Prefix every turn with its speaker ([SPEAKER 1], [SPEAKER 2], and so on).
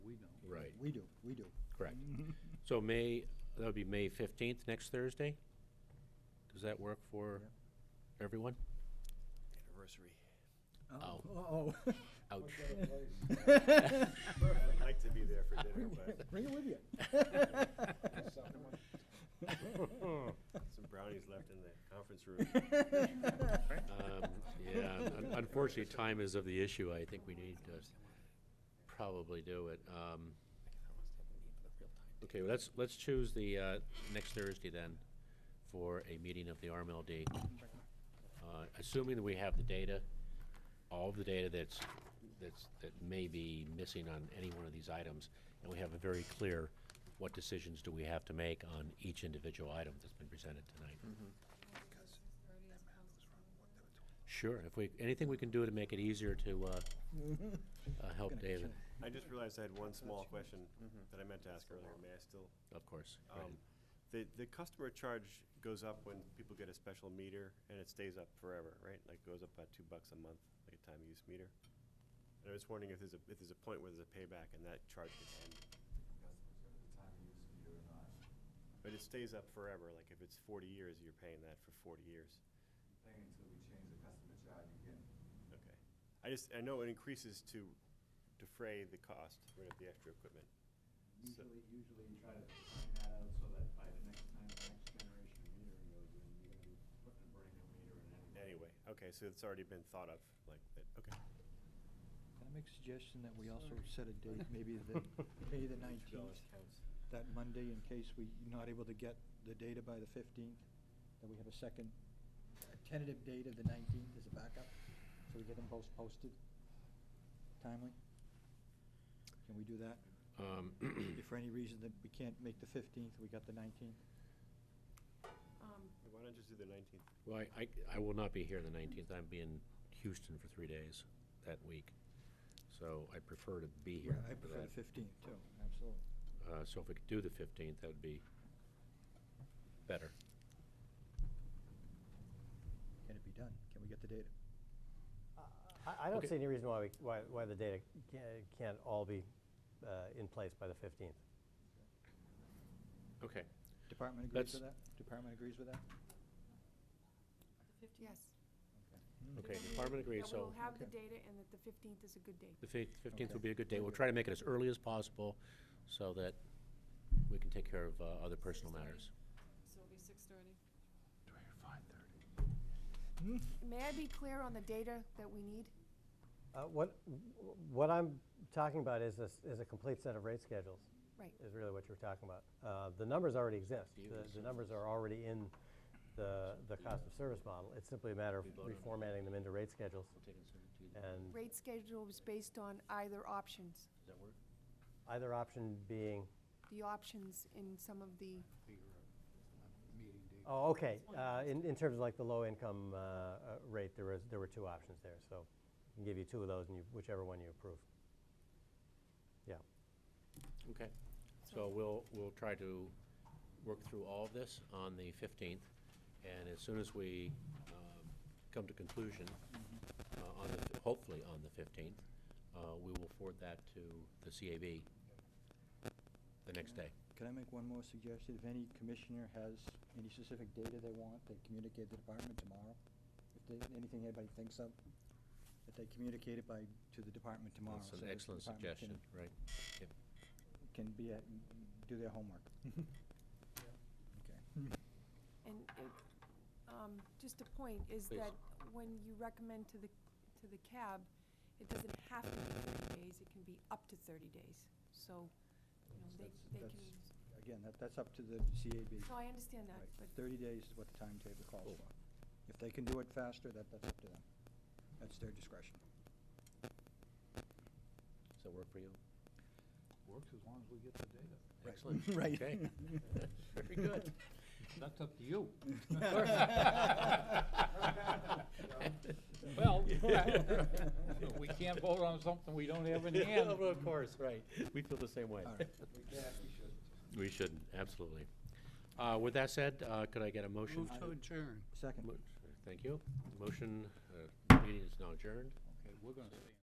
[SPEAKER 1] We do, we do.
[SPEAKER 2] Correct. So May, that would be May 15th, next Thursday? Does that work for everyone?
[SPEAKER 3] Anniversary.
[SPEAKER 2] Ow.
[SPEAKER 1] Oh, oh.
[SPEAKER 2] Ouch.
[SPEAKER 3] I'd like to be there for dinner, but
[SPEAKER 1] Bring it with you.
[SPEAKER 3] some brownies left in the conference room.
[SPEAKER 2] Um, Yeah, un- unfortunately, time is of the issue. I think we need to probably do it. Um, Okay, well, let's, let's choose the uh, next Thursday then for a meeting of the RMLD. Uh, Assuming that we have the data, all of the data that's, that's, that may be missing on any one of these items, and we have a very clear, what decisions do we have to make on each individual item that's been presented tonight? Sure, if we, anything we can do to make it easier to, uh, uh, help David,
[SPEAKER 3] I just realized I had one small question that I meant to ask earlier. May I still?
[SPEAKER 2] of course. go ahead.
[SPEAKER 3] Um, The, the customer charge goes up when people get a special meter and it stays up forever, right? Like goes up by two bucks a month, like a time use meter. And I was wondering if there's a, if there's a point where there's a payback and that charge could end. But it stays up forever, like if it's forty years, you're paying that for forty years.
[SPEAKER 4] thing until we change the customer charge again.
[SPEAKER 3] Okay. I just, I know it increases to defray the cost, right, of the extra equipment. So-
[SPEAKER 4] Usually, usually you try to find that out so that by the next time, the next generation of metering goes in, you're gonna be putting a brand new meter in anyway.
[SPEAKER 3] Anyway, okay, so it's already been thought of, like, that, okay.
[SPEAKER 1] Can I make a suggestion that we also set a date, maybe the, May the nineteenth, that Monday, in case we're not able to get the data by the fifteenth, that we have a second a tentative date of the nineteenth as a backup, so we get them both posted timely? Can we do that?
[SPEAKER 2] Um,
[SPEAKER 1] If for any reason that we can't make the fifteenth, we got the nineteenth?
[SPEAKER 5] Um,
[SPEAKER 3] Why don't you just do the nineteenth?
[SPEAKER 2] Well, I- I, I will not be here the nineteenth, I'm be in Houston for three days that week, so I prefer to be here
[SPEAKER 1] I
[SPEAKER 2] for
[SPEAKER 1] prefer
[SPEAKER 2] that.
[SPEAKER 1] the fifteenth too, absolutely.
[SPEAKER 2] Uh, so if we could do the fifteenth, that would be better.
[SPEAKER 1] Can it be done? Can we get the data?
[SPEAKER 6] I, I don't
[SPEAKER 2] Okay.
[SPEAKER 6] see any reason why, we, why, why the data can't, can't all be uh, in place by the 15th.
[SPEAKER 2] Okay,
[SPEAKER 1] Department agrees
[SPEAKER 2] Let's-
[SPEAKER 1] with that? Department agrees with that?
[SPEAKER 5] the 15th. Yes.
[SPEAKER 2] okay, department agrees,
[SPEAKER 5] That
[SPEAKER 2] so
[SPEAKER 5] we'll have the
[SPEAKER 1] Okay.
[SPEAKER 5] data and that the 15th is a good date.
[SPEAKER 2] the fifteenth
[SPEAKER 1] Okay.
[SPEAKER 2] will be a good day, we'll try to make it as early as possible so that we can take care of, uh, other personal matters.
[SPEAKER 7] So it'll be six thirty.
[SPEAKER 5] May I be clear on the data that we need?
[SPEAKER 6] Uh, what, what I'm talking about is, this, is a complete set of rate schedules.
[SPEAKER 5] Right.
[SPEAKER 6] Is really what you're talking about. Uh, the numbers already exist. The, the numbers are already in the, the cost of service model. It's simply a matter of reformatting them into rate schedules. And
[SPEAKER 5] Rate schedule is based on either options,
[SPEAKER 6] either option being,
[SPEAKER 5] the options in some of the,
[SPEAKER 6] oh, okay. Uh, in, in terms of like the low income uh, uh, rate, there was, there were two options there. So I can give you two of those and you, whichever one you approve. Yeah.
[SPEAKER 2] Okay, so we'll, we'll try to work through all of this on the 15th, and as soon as we um, come to conclusion, uh, on the, hopefully on the 15th, uh, we will forward that to the CAB the next day.
[SPEAKER 1] Can I make one more suggestion? If any commissioner has any specific data they want, they communicate the department tomorrow. If they, anything anybody thinks of, that they communicate it by, to the department tomorrow.
[SPEAKER 2] That's
[SPEAKER 1] so
[SPEAKER 2] an
[SPEAKER 1] that the
[SPEAKER 2] excellent
[SPEAKER 1] department
[SPEAKER 2] suggestion, right? Yep.
[SPEAKER 1] Can can be, at- do their homework. Okay.
[SPEAKER 5] and it, um, just a point is
[SPEAKER 2] Please.
[SPEAKER 5] that when you recommend to the, to the cab, it doesn't have to be 30 days, it can be up to 30 days. So, you know, they,
[SPEAKER 1] That's-
[SPEAKER 5] they can,
[SPEAKER 1] that's- Again, that, that's up to the CAB.
[SPEAKER 5] no, I understand that,
[SPEAKER 1] Right.
[SPEAKER 5] but
[SPEAKER 1] Thirty days is what the timetable calls for. If they can do it faster, that, that's up to them. That's their discretion.
[SPEAKER 2] Does that work for you?
[SPEAKER 4] Works as long as we get the data.
[SPEAKER 1] Right.
[SPEAKER 2] Excellent.
[SPEAKER 1] Right.
[SPEAKER 2] Okay. Very good.
[SPEAKER 4] That's up to you.
[SPEAKER 8] Well, we can't vote on something we don't have in hand.
[SPEAKER 2] Well, Of course, right. We feel the same way.
[SPEAKER 1] All right.
[SPEAKER 2] We shouldn't, absolutely. Uh, With that said, uh, could I get a motion?
[SPEAKER 8] Move to adjourn.
[SPEAKER 1] Second.
[SPEAKER 2] Mo- Thank you. Motion, uh, meeting is now adjourned.
[SPEAKER 8] Okay, we're gonna stay.